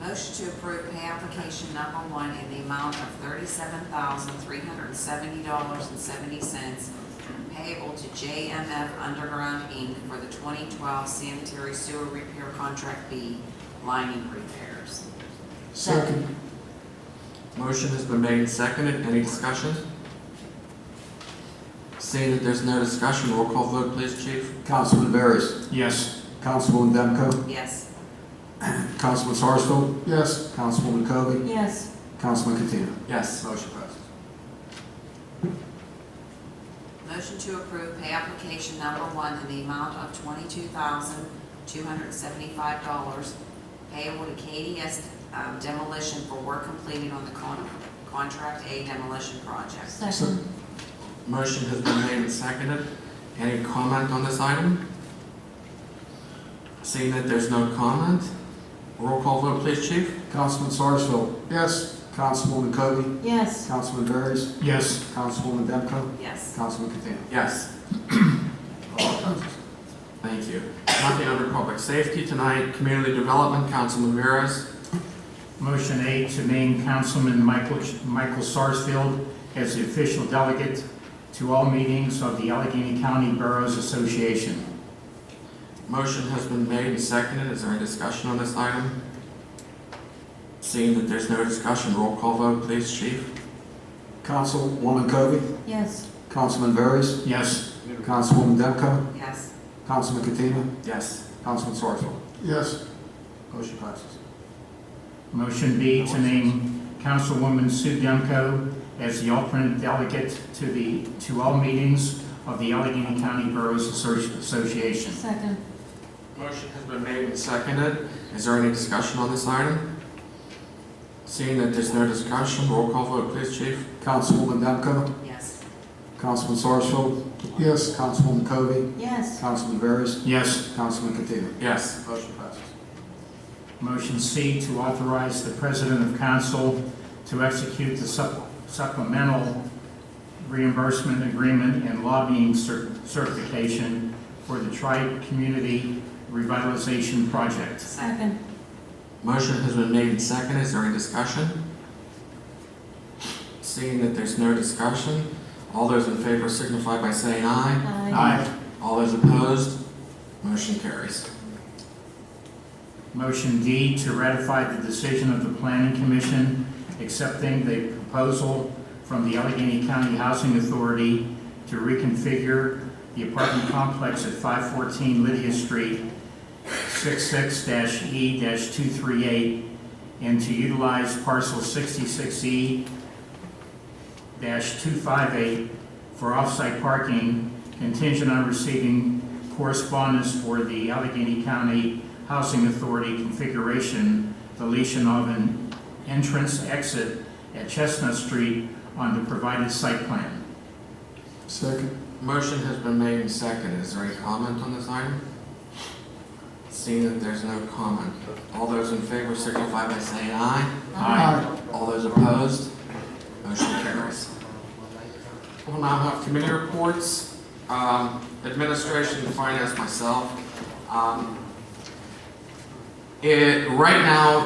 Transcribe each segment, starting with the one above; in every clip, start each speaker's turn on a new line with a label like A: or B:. A: motion to approve pay application number one in the amount of thirty-seven thousand, three hundred and seventy dollars and seventy cents payable to JMF Underground Inc. for the twenty twelve sanitary sewer repair contract B lining repairs.
B: Second.
C: Motion has been made and seconded. Any discussion? Seeing that there's no discussion, roll call vote, please, Chief.
D: Councilman Barris.
B: Yes.
D: Councilwoman Demko.
A: Yes.
D: Councilman Sarsfield.
B: Yes.
D: Councilwoman Kobe.
A: Yes.
D: Councilman Katina.
C: Yes.
D: Motion passes.
A: Motion to approve pay application number one in the amount of twenty-two thousand, two hundred and seventy-five dollars payable to KDS um, demolition for work completed on the con- contract A demolition project.
B: Second.
C: Motion has been made and seconded. Any comment on this item? Seeing that there's no comment, roll call vote, please, Chief.
D: Councilman Sarsfield.
B: Yes.
D: Councilwoman Kobe.
A: Yes.
D: Councilman Barris.
B: Yes.
D: Councilwoman Demko.
A: Yes.
D: Councilman Katina.
C: Yes. Thank you. Nothing under public safety tonight. Community Development, Councilman Veras.
E: Motion A to name Councilman Michael, Michael Sarsfield as the official delegate to all meetings of the Allegheny County Boroughs Association.
C: Motion has been made and seconded. Is there any discussion on this item? Seeing that there's no discussion, roll call vote, please, Chief.
D: Councilwoman Kobe.
A: Yes.
D: Councilman Barris.
E: Yes.
D: Councilwoman Demko.
A: Yes.
D: Councilman Katina.
C: Yes.
D: Councilman Sarsfield.
B: Yes.
D: Motion passes.
E: Motion B to name Councilwoman Sue Demko as the alternate delegate to the, to all meetings of the Allegheny County Boroughs Associ- Association.
A: Second.
C: Motion has been made and seconded. Is there any discussion on this item? Seeing that there's no discussion, roll call vote, please, Chief.
D: Councilwoman Demko.
A: Yes.
D: Councilman Sarsfield. Yes. Councilwoman Kobe.
A: Yes.
D: Councilman Barris.
E: Yes.
D: Councilman Katina.
C: Yes.
D: Motion passes.
E: Motion C to authorize the President of Council to execute the sup- supplemental reimbursement agreement and lobbying cer- certification for the Tri-Community Revitalization Project.
A: Second.
C: Motion has been made and seconded. Is there any discussion? Seeing that there's no discussion, all those in favor signify by saying aye.
E: Aye.
C: All those opposed, motion carries.
E: Motion D to ratify the decision of the Planning Commission accepting the proposal from the Allegheny County Housing Authority to reconfigure the apartment complex at 514 Lydia Street, E 66-E-238, and to utilize parcel E 66E-258 for off-site parking contingent on receiving correspondence for the Allegheny County Housing Authority configuration, deletion of an entrance exit at Chestnut Street on the provided site plan.
D: Second.
C: Motion has been made and seconded. Is there any comment on this item? Seeing that there's no comment, all those in favor signify by saying aye. All those opposed, motion carries. We'll now have committee reports, um, administration, finance, myself. Um, It, right now,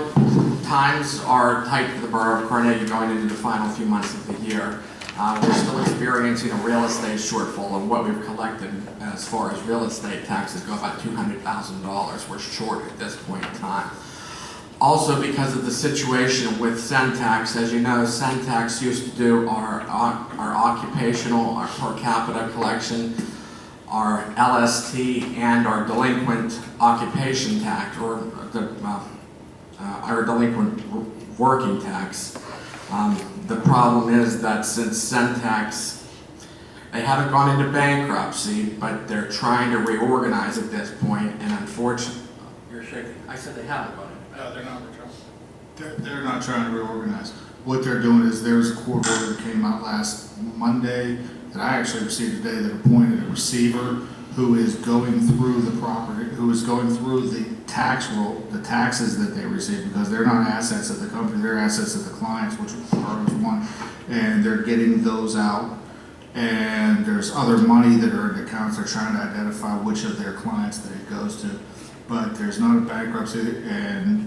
C: times are tight for the Borough of Carnegie going into the final few months of the year. Uh, We're still experiencing a real estate shortfall and what we've collected as far as real estate taxes go, about $200,000. We're short at this point in time. Also, because of the situation with Centex, as you know, Centex used to do our, uh, our occupational, our per capita collection, our LST, and our delinquent occupation tax, or the, uh, uh, our delinquent w- working tax. Um, the problem is that since Centex, they haven't gone into bankruptcy, but they're trying to reorganize at this point, and unfortunately, you're shaking. I said they haven't gone into
F: No, they're not, they're, they're not trying to reorganize. What they're doing is there was a court order that came out last Monday that I actually received today that appointed a receiver who is going through the property, who is going through the tax roll, the taxes that they receive because they're not assets of the company, they're assets of the clients, which are one. And they're getting those out and there's other money that are in accounts, they're trying to identify which of their clients that it goes to. But there's not a bankruptcy, and